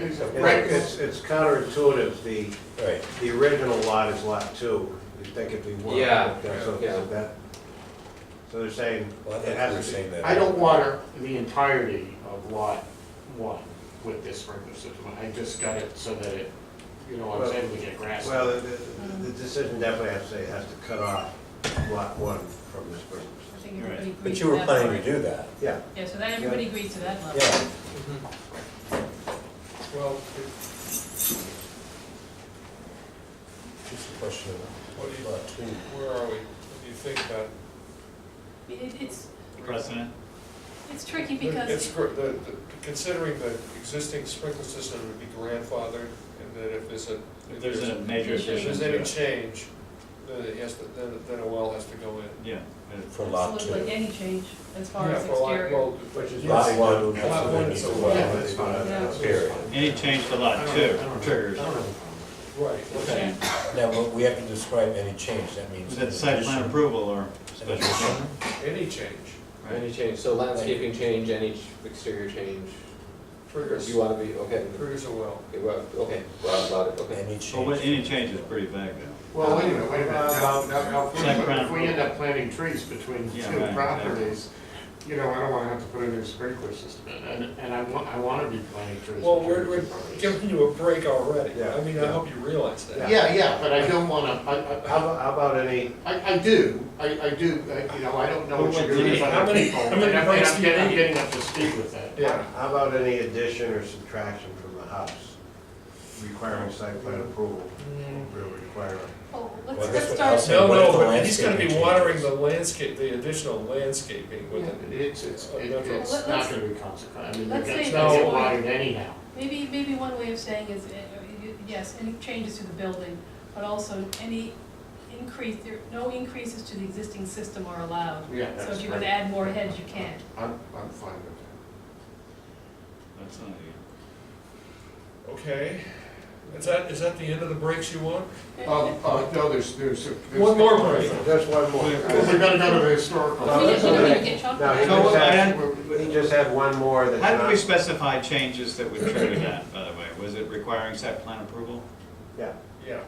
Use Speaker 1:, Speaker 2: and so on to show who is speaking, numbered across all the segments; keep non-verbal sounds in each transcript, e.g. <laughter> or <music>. Speaker 1: trees up.
Speaker 2: It's- It's, it's counterintuitive, the,
Speaker 3: Right.
Speaker 2: the original lot is lot two, you think it'd be one.
Speaker 1: Yeah,
Speaker 2: Okay, so-
Speaker 1: yeah.
Speaker 2: So that, so they're saying,
Speaker 3: Well, I
Speaker 2: it
Speaker 3: think we're
Speaker 2: has to
Speaker 3: saying
Speaker 2: be.
Speaker 3: that.
Speaker 4: I don't want the entirety of lot one with this sprinkler system. I just got it so that it, you know what I'm saying, we get grass.
Speaker 2: Well, the, the- the decision definitely has to say it has to cut off lot one from this person.
Speaker 5: I think everybody agreed
Speaker 3: But
Speaker 5: to
Speaker 3: you were
Speaker 5: that
Speaker 3: planning
Speaker 5: part.
Speaker 3: to do that,
Speaker 2: Yeah,
Speaker 5: Yeah, so that everybody agreed to that level.
Speaker 3: yeah.
Speaker 1: Well,
Speaker 3: Just a question
Speaker 1: What do
Speaker 3: of
Speaker 1: you-
Speaker 3: lot two.
Speaker 1: where are we? What do you think about?
Speaker 5: I mean, it- It's,
Speaker 6: precedent.
Speaker 5: it's tricky because.
Speaker 1: It's, gr- the, the, considering the existing sprinkler system would be grandfathered, and that if there's a.
Speaker 6: If there's a major
Speaker 5: If
Speaker 1: If
Speaker 6: addition
Speaker 1: there's
Speaker 6: to
Speaker 1: any
Speaker 6: it.
Speaker 1: change, then it has to, then, then a well has to go in.
Speaker 6: Yeah. it's-
Speaker 3: For lot two.
Speaker 5: Absolutely, any change as far
Speaker 1: Yeah,
Speaker 5: as
Speaker 1: for lot-
Speaker 5: exterior.
Speaker 1: well,
Speaker 2: which is.
Speaker 3: Lot one, that's
Speaker 1: Lot
Speaker 3: what they
Speaker 1: one
Speaker 3: need
Speaker 1: is
Speaker 3: to
Speaker 1: a
Speaker 3: do.
Speaker 1: lot.
Speaker 2: Yeah, that's fine.
Speaker 5: Yeah.
Speaker 3: Period.
Speaker 6: Any change to
Speaker 2: I
Speaker 6: lot
Speaker 2: don't- I
Speaker 6: two
Speaker 2: don't-
Speaker 6: triggers.
Speaker 2: I don't have a problem.
Speaker 1: Right, okay.
Speaker 6: Okay.
Speaker 3: Now, but we have to describe any change, that means.
Speaker 6: Is that site plan
Speaker 3: addition.
Speaker 6: approval or special permit?
Speaker 1: Any change
Speaker 6: Right.
Speaker 7: Any change, so landscaping change, any ch- exterior change, or
Speaker 1: triggers,
Speaker 7: you wanna be, okay,
Speaker 1: triggers a well.
Speaker 7: okay, well, okay, well, about it, okay.
Speaker 3: Any
Speaker 6: Well, what-
Speaker 3: change.
Speaker 6: Oh, any change is pretty vague though.
Speaker 4: Well, wait a minute, wait a minute. Now, now, now, if we-
Speaker 6: Site plan
Speaker 4: if we end up planting trees between
Speaker 6: Yeah,
Speaker 4: two
Speaker 6: right,
Speaker 4: properties, you know, I don't wanna have to put a new sprinkler system in, and, and I wa- I wanna be planting trees.
Speaker 1: Well,
Speaker 4: between
Speaker 1: we're,
Speaker 4: two
Speaker 1: we're
Speaker 4: properties.
Speaker 1: giving you a break already.
Speaker 2: Yeah.
Speaker 1: I mean, I hope you realize that.
Speaker 4: Yeah, yeah, but I don't wanna, I, I,
Speaker 2: How about, how about any,
Speaker 4: I, I do, I, I do, I- you know, I don't know what you're
Speaker 1: Well,
Speaker 4: doing, but
Speaker 1: how
Speaker 4: I'm
Speaker 1: many-
Speaker 4: people,
Speaker 1: how
Speaker 4: and
Speaker 1: many
Speaker 4: I'm, and
Speaker 1: votes
Speaker 4: I'm
Speaker 1: do you
Speaker 4: getting, I'm
Speaker 1: need?
Speaker 4: getting up to speed with that.
Speaker 1: Yeah.
Speaker 2: how about any addition or subtraction from the house requiring site plan approval?
Speaker 1: Mm.
Speaker 2: Will require
Speaker 5: Well,
Speaker 3: Well,
Speaker 5: let's,
Speaker 3: that's
Speaker 5: let's
Speaker 3: what
Speaker 5: start,
Speaker 3: Elsa-
Speaker 1: No,
Speaker 3: What
Speaker 1: no,
Speaker 3: if the
Speaker 1: but he's gonna be
Speaker 3: landscaping
Speaker 1: watering the
Speaker 3: changes?
Speaker 1: landscape, the additional landscaping with it.
Speaker 4: It's, it's, it-
Speaker 1: Okay.
Speaker 4: it's
Speaker 5: Let-
Speaker 4: not
Speaker 5: let's-
Speaker 4: gonna be consequential, I mean,
Speaker 5: let's
Speaker 4: it's
Speaker 5: say
Speaker 4: not
Speaker 1: that's
Speaker 4: get
Speaker 1: why-
Speaker 4: wired anyhow.
Speaker 5: maybe, maybe one way of saying is, uh, you- yes, any changes to the building, but also any increase, there, no increases to the existing system are allowed.
Speaker 4: Yeah,
Speaker 5: So
Speaker 4: that's
Speaker 5: if you're gonna
Speaker 4: right.
Speaker 5: add more heads, you can.
Speaker 4: I'm, I'm fine with that.
Speaker 6: That's not it.
Speaker 1: Okay, is that, is that the end of the breaks you want?
Speaker 5: <laughs>
Speaker 4: Um, uh, no, there's, there's. there's-
Speaker 1: One more break.
Speaker 2: Just one more.
Speaker 4: Because we're gonna go to the historical. uh,
Speaker 2: No,
Speaker 5: We
Speaker 2: that's
Speaker 5: don't- we don't
Speaker 2: okay.
Speaker 5: even get chocolate.
Speaker 2: No, he
Speaker 6: So
Speaker 2: just
Speaker 6: what I
Speaker 2: had,
Speaker 6: had-
Speaker 2: he just had one more that's
Speaker 6: How did we
Speaker 2: not,
Speaker 6: specify changes that would trigger that, by the way? Was it requiring site plan approval
Speaker 2: yeah.
Speaker 1: Yeah.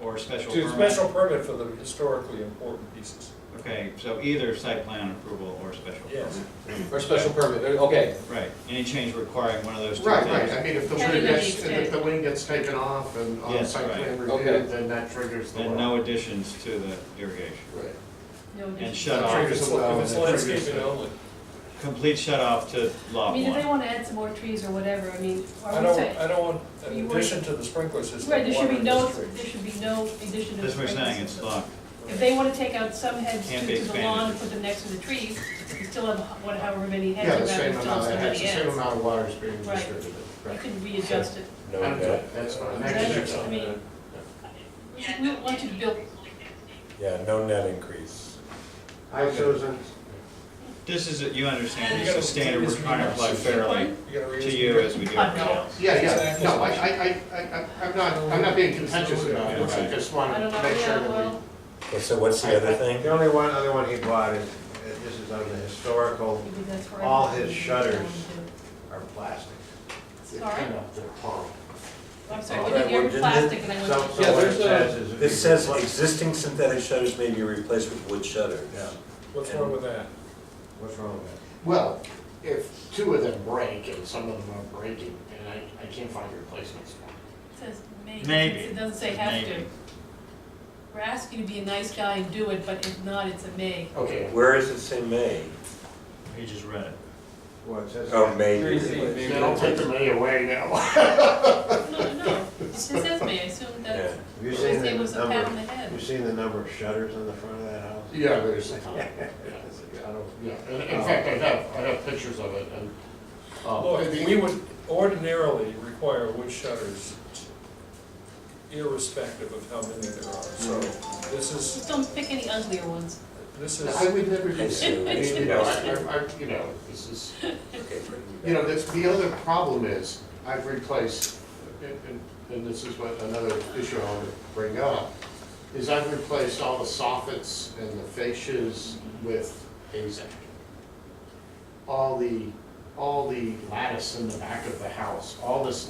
Speaker 6: or special
Speaker 1: To
Speaker 6: permit?
Speaker 1: special permit for the historically important pieces.
Speaker 6: Okay, so either site plan approval or special
Speaker 1: Yes.
Speaker 6: permit.
Speaker 7: Or special permit, uh, okay,
Speaker 6: Right, any change requiring one of those two
Speaker 4: Right, right, I
Speaker 6: things?
Speaker 4: mean, if the
Speaker 5: Can
Speaker 4: wing
Speaker 5: you
Speaker 4: gets,
Speaker 5: just
Speaker 4: if the wing gets taken off and on
Speaker 6: Yes,
Speaker 4: site plan
Speaker 6: right.
Speaker 7: Okay.
Speaker 4: review, then that triggers the
Speaker 6: Then
Speaker 4: law.
Speaker 6: no additions to the irrigation.
Speaker 4: Right.
Speaker 5: No
Speaker 6: And
Speaker 5: additions.
Speaker 6: shut
Speaker 1: If
Speaker 6: off,
Speaker 1: it's- If it's landscaping only.
Speaker 6: complete shut off to
Speaker 5: I
Speaker 6: lot
Speaker 5: mean, if they
Speaker 6: one.
Speaker 5: wanna add some more trees or whatever, I mean,
Speaker 1: I
Speaker 5: are we
Speaker 1: don't,
Speaker 5: saying?
Speaker 1: I don't want,
Speaker 5: You
Speaker 1: in
Speaker 5: want-
Speaker 1: addition to the sprinkler system.
Speaker 5: Right, there should be
Speaker 1: watering
Speaker 5: no,
Speaker 1: the
Speaker 5: there
Speaker 1: trees.
Speaker 5: should be no addition of.
Speaker 6: That's what we're saying,
Speaker 5: sprinklers.
Speaker 6: it's locked.
Speaker 5: If they wanna take out some heads
Speaker 6: Can't
Speaker 5: to
Speaker 6: be
Speaker 5: to the
Speaker 6: expanded.
Speaker 5: lawn and put them next to the trees, you still have, what, however many heads,
Speaker 4: Yeah,
Speaker 5: around,
Speaker 4: the
Speaker 5: there's
Speaker 4: same
Speaker 5: still
Speaker 4: amount,
Speaker 5: so
Speaker 4: of- it's
Speaker 5: many
Speaker 4: the same
Speaker 5: heads.
Speaker 4: amount of water is being
Speaker 5: Right.
Speaker 4: distributed.
Speaker 5: You
Speaker 4: Right.
Speaker 5: could readjust it.
Speaker 3: No,
Speaker 4: I'm
Speaker 3: that-
Speaker 4: good, that's fine.
Speaker 5: Is
Speaker 4: Next
Speaker 5: that-
Speaker 4: year's
Speaker 5: I
Speaker 4: on
Speaker 5: mean, we don't want you to build,
Speaker 3: yeah, no net increase.
Speaker 2: Hi, Susan.
Speaker 6: This is, you understand,
Speaker 1: You
Speaker 6: this
Speaker 1: gotta-
Speaker 6: is a standard we're trying to apply fairly
Speaker 1: You gotta read
Speaker 6: to
Speaker 1: this.
Speaker 6: you as we do everybody else.
Speaker 4: Yeah, yeah, no, I, I, I, I, I'm not, I'm not being contentious about it, I just
Speaker 5: I
Speaker 4: wanted
Speaker 5: don't
Speaker 4: to
Speaker 5: know,
Speaker 4: make sure
Speaker 5: yeah,
Speaker 4: that
Speaker 5: well,
Speaker 4: we.
Speaker 3: Okay, So what's the other thing?
Speaker 2: The only one, other one he bought is, uh, this is on the historical,
Speaker 5: maybe that's where.
Speaker 2: All
Speaker 5: everything
Speaker 2: his
Speaker 5: is down
Speaker 2: shutters.
Speaker 5: to.
Speaker 2: are plastic.
Speaker 5: Sorry, Oh,
Speaker 4: Kind of, they're horrible.
Speaker 5: I'm
Speaker 4: Oh,
Speaker 5: sorry,
Speaker 3: All
Speaker 5: we
Speaker 3: right,
Speaker 5: didn't hear
Speaker 3: well,
Speaker 5: plastic and I went.
Speaker 2: So,
Speaker 5: to-
Speaker 2: so what it
Speaker 7: there's a-
Speaker 2: says is. if
Speaker 3: It
Speaker 2: you-
Speaker 3: says like, existing synthetic shutters may be replaced with wood shutters.
Speaker 2: Yeah,
Speaker 1: What's wrong with that?
Speaker 2: what's wrong with that?
Speaker 4: Well, if two of them break and some of them are breaking, and I, I can't find replacements for them.
Speaker 5: It Says maybe.
Speaker 6: Maybe.
Speaker 5: It doesn't say have to.
Speaker 6: Maybe.
Speaker 5: We're asking you to be a nice guy and do it, but if not, it's a
Speaker 4: <laughs>
Speaker 5: may.
Speaker 4: Okay,
Speaker 3: Where is it say may?
Speaker 6: He just read it.
Speaker 2: Well, it says.
Speaker 3: Oh, may be
Speaker 7: Three C,
Speaker 3: replaced.
Speaker 7: maybe.
Speaker 4: then I'll take the money <laughs> away now.
Speaker 5: No, no, no, it just says may, I assume
Speaker 3: Yeah.
Speaker 5: that,
Speaker 2: Have you
Speaker 5: it
Speaker 2: seen the
Speaker 5: was a pat on
Speaker 2: number,
Speaker 5: the head.
Speaker 2: have you seen the number of shutters on the front of that house? <laughs>
Speaker 4: Yeah, there's a ton.
Speaker 2: It's a ton of-
Speaker 4: Yeah, in in fact, I have, I have pictures of it, and. uh,
Speaker 1: Look,
Speaker 4: the-
Speaker 1: we would ordinarily require wood shutters irrespective of how many there are, so this is,
Speaker 5: Just don't pick any uglier ones.
Speaker 1: this is.
Speaker 4: I would never do
Speaker 3: I see.
Speaker 4: that. I mean, you know, I, I, I- you know, this is,
Speaker 3: Okay,
Speaker 4: you know, that's, the other problem is, I've replaced, and, and- and this is what, another issue I want to bring up, is I've replaced all the soffits and the fascias with AZAC. All the, all the lattice in the back of the house, all this